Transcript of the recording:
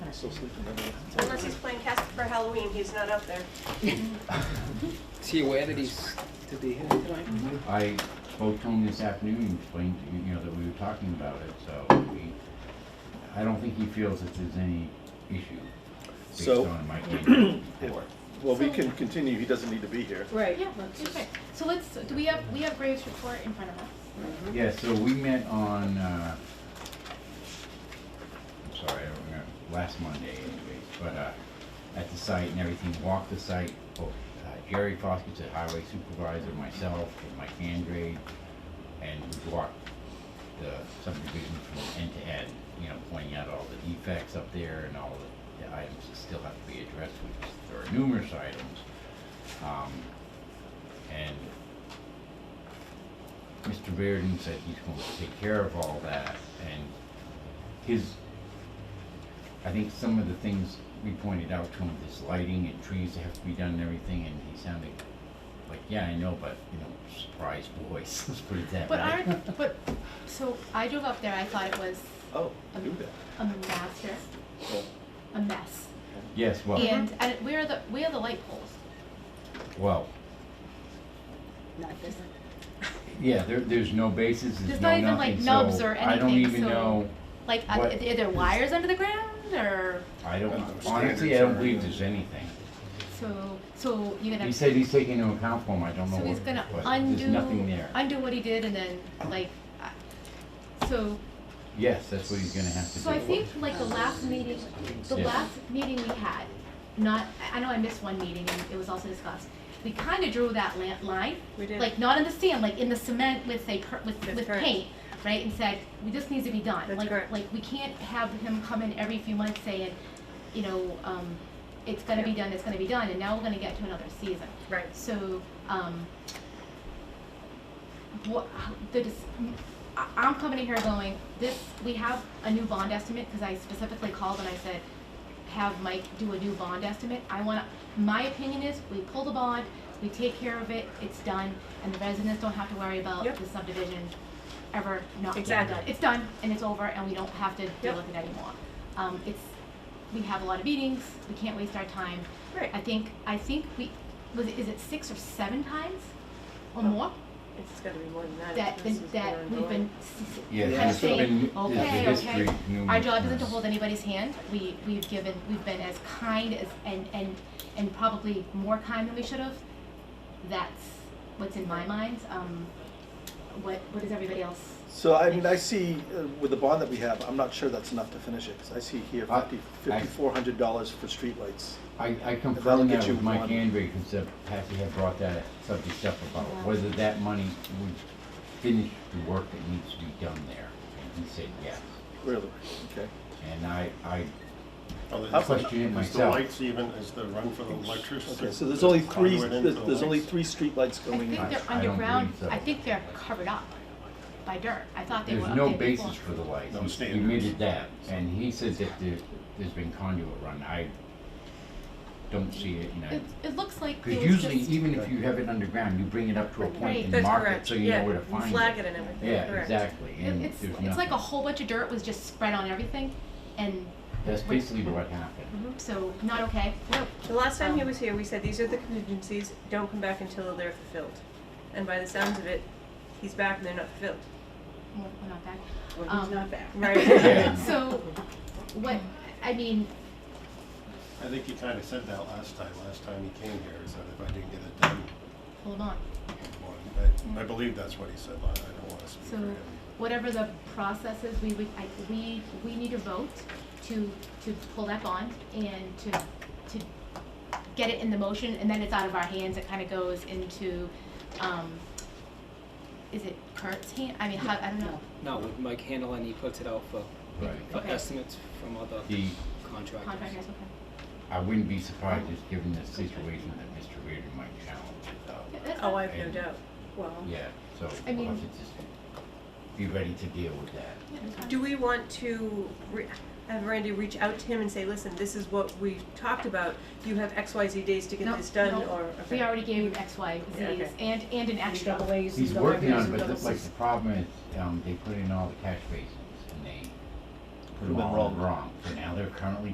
He's still sleeping. I mean, it's- Unless he's playing Casper for Halloween, he's not out there. Is he aware that he's, to be here tonight? I spoke to him this afternoon, and explained, to you you know, that we were talking about it, so we, I don't think he feels that there's any issue based So- on my email report. Well, we can continue, he doesn't need to be here. Right. Yeah, okay. So let's, do we have, we have Graves' report in front of us? Yeah, so we met on, uh, I'm sorry, I don't remember, last Monday anyways, but, uh, at the site and everything, walked the site, both uh, Jerry Foskett, the highway supervisor, myself, and Mike Andrade, and we walked the subdivision from end to end, you know, pointing out all the defects up there and all the- the items that still have to be addressed, which there are numerous items. Um, and Mr. Bearden said he's going to take care of all that, and his, I think some of the things we pointed out to him, this lighting and trees that have to be done and everything, and he sounded like, yeah, I know, but, you know, surprise boys, let's put it that way. But aren't, but, so I drove up there, I thought it was Oh, do that. a master, Well, a mess. Yes, well, And, and where are the, where are the light poles? well, Not this. yeah, there, there's no bases, there's There's no not even, like, nothing, nubs so or I don't anything, even so- know, Like, are What- there are there wires under the ground or, I don't, Standards honestly, I don't are- believe there's anything. so, so you're gonna. He said he's taking into account for him, I don't know So what, he's gonna but there's nothing undo, there. undo what he did and then like, I- so, Yes, that's what he's gonna have to do. so I think like the last meeting, the Yeah. last meeting we had, not, I I know I missed one meeting and it was also discussed. We kinda drew that la- line, We did. like not in the sand, like in the cement with a, per- with, That's with correct. paint, right? And said, we just needs to be done. That's Like- correct. Like, we can't have him come in every few months saying, you know, um, it's gonna be done, it's gonna be done, and now we're gonna get to another season. Right. So, um, what, the, dis- I, I'm coming in here going, this, we have a new bond estimate, cause I specifically called and I said, have Mike do a new bond estimate, I wanna, my opinion is, we pull the bond, we take care of it, it's done, and the residents don't have to worry about Yep. the subdivision ever not being done. Exactly. It's done, and it's over, and we don't have to Yep. deal with it anymore. Um, it's, we have a lot of meetings, we can't waste our time, Right. I think, I think we, was it, is it six or seven times or more? It's gotta be more than that. That, This is that going we've been, Yeah, kind of there's been, saying, there's okay, been history. okay. Our job isn't numerous to hold times. anybody's hand, we, we've given, we've been as kind as, and, and, and probably more kind than we should have. That's what's in my mind, um, what, what does everybody else? So I mean, I see uh, with the bond that we have, I'm not sure that's enough to finish it, 'cause I see here I- fifty, I- fifty-four hundred dollars for streetlights. I, I that'll confirmed get that you with Mike one. Andre, because Patsy had brought that subject up about Yeah. whether that money would finish the work that needs to be done there, and he said yes. Really, okay. And I, I Oh, How- there's- questioned it There's the myself. lights even, is the run for the electricity. Okay, so there's only three, conduit into there's the there's only lights. three streetlights I going think in. they're I don't underground, believe so. I think they're covered up by dirt, I thought they were There's up no there before. basis for the lights. No He- He standards. admitted that, and he said that there, there's been conduit run, I don't see it, and I. It, it looks like there Because was usually, just- even if you have it underground, you bring it up to a point and That's mark correct. it so you know Yeah, where to you find it. flag it and everything. Yeah, Correct. exactly, and It- there's It's, nothing. it's like a whole bunch of dirt was just spread on everything, and That's basically what happened. so, not okay. No, the last time he was here, we said, these are the contingencies, don't come back until they're fulfilled. And by the sounds of it, he's back and they're not fulfilled. Well, we're not back. Well, he's Um, not back. Right. So, what, I mean, I think he kind of said that last time, last time he came here, he said if I didn't get it done, hold on, well, I- I believe that's what he said, I I don't want to speak for so him. whatever the process is, we, we, I, we, we need a vote to, to pull that bond and to, to get it in the motion, and then it's out of our hands, it kinda goes into, um, is it Kurt's hand, I mean, how, I don't know. No, with Mike Handel and he puts it out for, Mm-hmm. Right. for Okay. estimates from other The, contractors. Contractors, okay. I wouldn't be surprised, just given the situation that Mr. Reardon might challenge it Yeah, though. that's Oh, fine. I have no doubt. Well, Yeah, so I we'll mean- have to just be ready to deal with that. Yeah, that's fine. Do we want to re- have Randy reach out to him and say, listen, this is what we talked about, you have X, Y, Z days to get No, this done, no, or? We okay. already gave him X, Y, Yeah, Z's, okay. and, and an and extra. double A's and He's double working Bs on and it, but double the- like Cs. the problem is, um, they put in all the catch basins and they put Could've them been all wrong. wrong. So now they're currently